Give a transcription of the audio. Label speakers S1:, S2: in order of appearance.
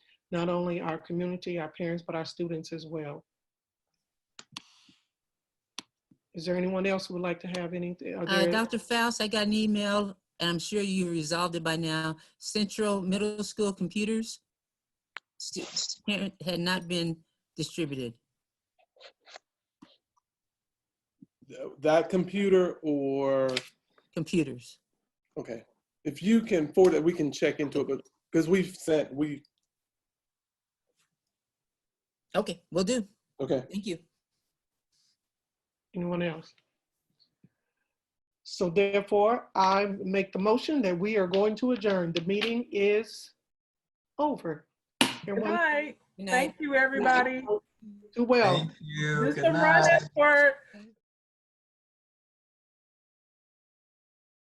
S1: not only our community, our parents, but our students as well. Is there anyone else who would like to have anything? are
S2: Uh,
S1: there-
S2: Dr. Faust, I got an email, and I'm sure you resolved it by now. Central Middle School computers stu- parent- had not been distributed.
S3: that computer or,
S2: Computers.
S3: okay, if you can forward it, we can check into it, but, because we've sent, we,
S2: Okay, will do.
S3: okay.
S2: Thank you.
S1: Anyone else? So therefore, I make the motion that we are going to adjourn. The meeting is over.
S4: Good
S1: Everyone
S4: night.
S2: Good night.
S4: Thank you, everybody.
S1: Do well.
S5: Thank you.
S4: Do
S5: Good
S4: some
S5: night.
S4: running work.